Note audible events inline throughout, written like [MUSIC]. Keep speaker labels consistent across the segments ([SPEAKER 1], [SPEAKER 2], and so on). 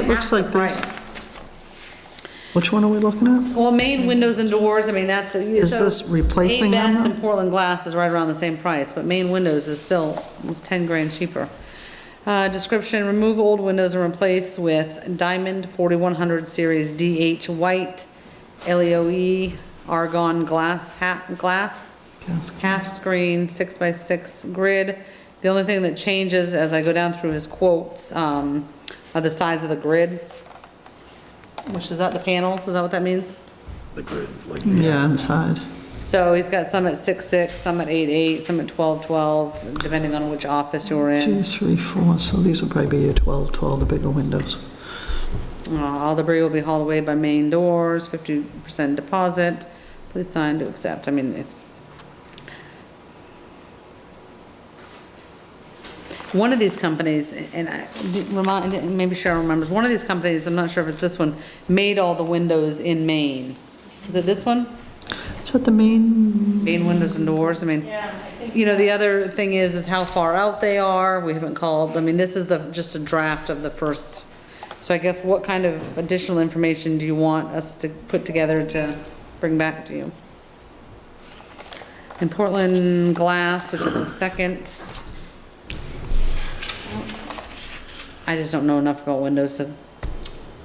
[SPEAKER 1] Looks
[SPEAKER 2] half the
[SPEAKER 1] like this.
[SPEAKER 2] price.
[SPEAKER 1] Which one are we looking at?
[SPEAKER 2] Well, main windows and doors, I mean, that's.
[SPEAKER 1] Is
[SPEAKER 2] so
[SPEAKER 1] this replacing them,
[SPEAKER 2] A-Best
[SPEAKER 1] though?
[SPEAKER 2] and Portland Glass is right around the same price, but main windows is still almost 10 grand cheaper. Uh, Description, remove old windows and replace with diamond 4100 series DH white E LEOE argon glass, half, glass,
[SPEAKER 1] Gasket.
[SPEAKER 2] half screen, six by six grid. The only thing that changes as I go down through his quotes um, are the size of the grid, which is that the panels, is that what that means?
[SPEAKER 3] the grid, like,
[SPEAKER 1] Yeah, inside.
[SPEAKER 2] So he's got some at six six, some at eight eight, some at twelve twelve, depending on which office you're in.
[SPEAKER 1] Two, three, four, so these will probably be your 12, 12, the bigger windows.
[SPEAKER 2] Uh, All debris will be hauled away by main doors, fifty percent deposit. Please sign to accept. I mean, it's. One of these companies, and I, remind, maybe Cheryl remembers, one of these companies, I'm not sure if it's this one, made all the windows in Maine. Is it this one?
[SPEAKER 1] Is that the main,
[SPEAKER 2] Main windows and doors, I mean. You know, the other thing is, is how far out they are, we haven't called, I mean, this is the, just a draft of the first. So I guess what kind of additional information do you want us to put together to bring back to you? In Portland Glass, which is the second. I just don't know enough about windows to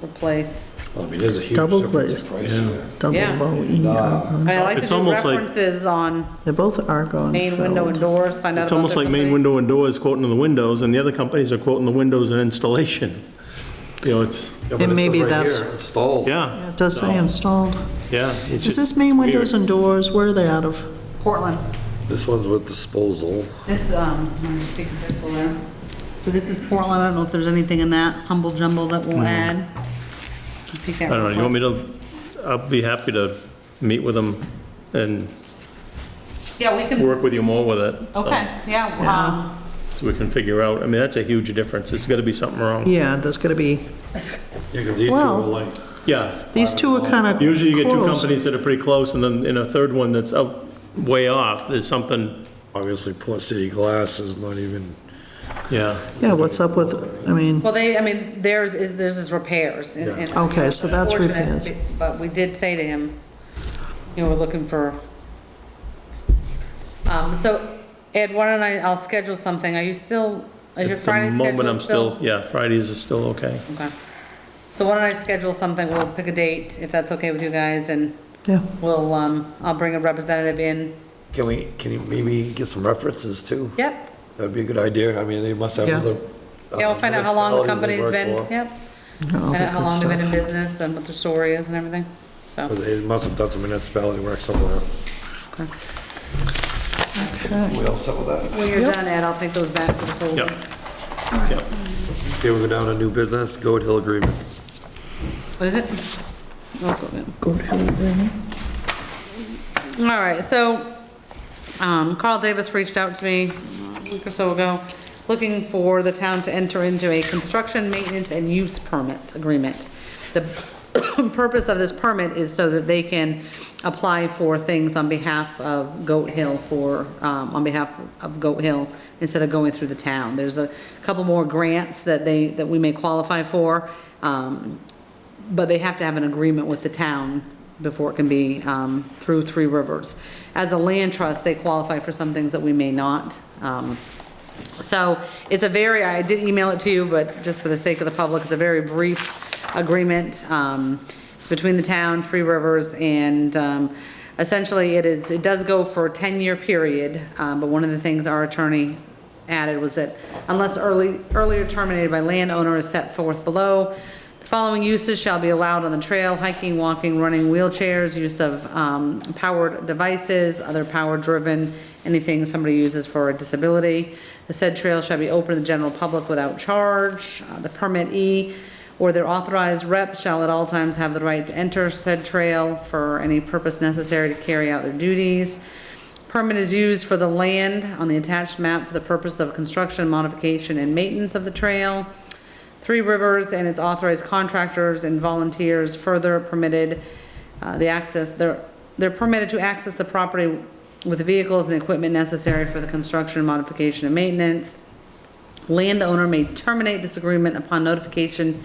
[SPEAKER 2] replace.
[SPEAKER 3] I mean, there's a huge
[SPEAKER 1] Double
[SPEAKER 3] difference
[SPEAKER 1] glazed.
[SPEAKER 3] in price there.
[SPEAKER 1] double
[SPEAKER 2] Yeah.
[SPEAKER 1] low E?
[SPEAKER 2] I
[SPEAKER 1] uh,
[SPEAKER 2] mean, I like to
[SPEAKER 4] It's
[SPEAKER 2] do
[SPEAKER 4] almost like-
[SPEAKER 2] references on
[SPEAKER 1] They're both argon
[SPEAKER 2] main window and
[SPEAKER 1] filled.
[SPEAKER 2] doors, find out about
[SPEAKER 4] It's almost
[SPEAKER 2] their
[SPEAKER 4] like main
[SPEAKER 2] company.
[SPEAKER 4] window and doors quoting the windows, and the other companies are quoting the windows and installation. [LAUGHS] You know, it's,
[SPEAKER 3] Yeah, but
[SPEAKER 1] And
[SPEAKER 3] it
[SPEAKER 1] maybe
[SPEAKER 3] says right
[SPEAKER 1] that's-
[SPEAKER 3] here, Installed.
[SPEAKER 4] yeah,
[SPEAKER 1] It does say installed.
[SPEAKER 4] yeah. it's
[SPEAKER 1] Is
[SPEAKER 4] just
[SPEAKER 1] this main
[SPEAKER 4] weird.
[SPEAKER 1] windows and doors, where are they out of?
[SPEAKER 2] Portland.
[SPEAKER 3] This one's with disposal.
[SPEAKER 2] This, um, let me speak of this one there. So this is Portland, I don't know if there's anything in that humble jumble that we'll add.
[SPEAKER 4] Mm. I don't know, you want me to, I'll be happy to meet with them and
[SPEAKER 2] Yeah, we can,
[SPEAKER 4] work with you more with it. so-
[SPEAKER 2] okay, yeah, um,
[SPEAKER 4] So we can figure out, I mean, that's a huge difference, there's gotta be something wrong.
[SPEAKER 1] Yeah, there's gonna be,
[SPEAKER 3] Yeah, because these two
[SPEAKER 1] Well-
[SPEAKER 3] are like,
[SPEAKER 4] Yeah,
[SPEAKER 1] these two are kind of
[SPEAKER 4] usually you get two
[SPEAKER 1] close.
[SPEAKER 4] companies that are pretty close, and then, and a third one that's out, way off, there's something,
[SPEAKER 3] obviously, Port City Glass is not even,
[SPEAKER 4] yeah.
[SPEAKER 1] Yeah, what's up with, I mean,
[SPEAKER 2] well, they, I mean, theirs is, theirs is repairs. and- and-
[SPEAKER 1] Okay, so that's
[SPEAKER 2] Unfortunate,
[SPEAKER 1] repairs.
[SPEAKER 2] But we did say to him, you know, we're looking for, um, so Ed, why don't I, I'll schedule something, are you still, is your
[SPEAKER 4] At the
[SPEAKER 2] Friday schedule
[SPEAKER 4] moment, I'm Yeah, Fridays are still okay.
[SPEAKER 2] Okay. So why don't I schedule something, we'll pick a date, if that's okay with you guys, and
[SPEAKER 1] yeah,
[SPEAKER 2] we'll, um, I'll bring a representative in.
[SPEAKER 3] can we, can you maybe get some references too?
[SPEAKER 2] Yep,
[SPEAKER 3] That'd be a good idea. I mean, they must have
[SPEAKER 1] Yeah.
[SPEAKER 3] other.
[SPEAKER 2] yeah, we'll
[SPEAKER 3] um,
[SPEAKER 2] find out how long the
[SPEAKER 3] municipalities
[SPEAKER 2] company's
[SPEAKER 3] they
[SPEAKER 2] been,
[SPEAKER 3] work for.
[SPEAKER 2] yep.
[SPEAKER 1] all
[SPEAKER 2] Find out
[SPEAKER 1] that
[SPEAKER 2] Uh, how long they've been in
[SPEAKER 1] good stuff.
[SPEAKER 2] business and what their story is and everything, so.
[SPEAKER 3] But They must have done some municipality work somewhere.
[SPEAKER 2] okay.
[SPEAKER 1] Okay.
[SPEAKER 3] We all set with that?
[SPEAKER 2] When you're done, Ed, I'll take those back to the folder.
[SPEAKER 4] Yep. Yep.
[SPEAKER 3] Okay, we'll go down to new business, Goat Hill Agreement.
[SPEAKER 2] What is it? Oh, go ahead.
[SPEAKER 1] Good, yeah.
[SPEAKER 2] All right, so um, Carl Davis reached out to me a week or so ago, looking for the town to enter into a construction, maintenance, and use permit agreement. The [COUGHS] purpose of this permit is so that they can apply for things on behalf of Goat Hill for, um, on behalf of Goat Hill, instead of going through the town. There's a couple more grants that they, that we may qualify for. Um, but they have to have an agreement with the town before it can be um, through Three Rivers. As a land trust, they qualify for some things that we may not. Um, So it's a very, I did email it to you, but just for the sake of the public, it's a very brief agreement. Um, It's between the town, Three Rivers, and um, essentially it is, it does go for a 10-year period, um, but one of the things our attorney added was that unless early, earlier terminated by landowner is set forth below, the following uses shall be allowed on the trail, hiking, walking, running, wheelchairs, use of um, powered devices, other power-driven, anything somebody uses for a disability. The said trail shall be open to the general public without charge. Uh, The permit E, or their authorized rep shall at all times have the right to enter said trail for any purpose necessary to carry out their duties. Permit is used for the land on the attached map for the purpose of construction, modification, and maintenance of the trail. Three Rivers and its authorized contractors and volunteers further permitted uh, the access, they're, they're permitted to access the property with the vehicles and equipment necessary for the construction, modification, and maintenance. Landowner may terminate this agreement upon notification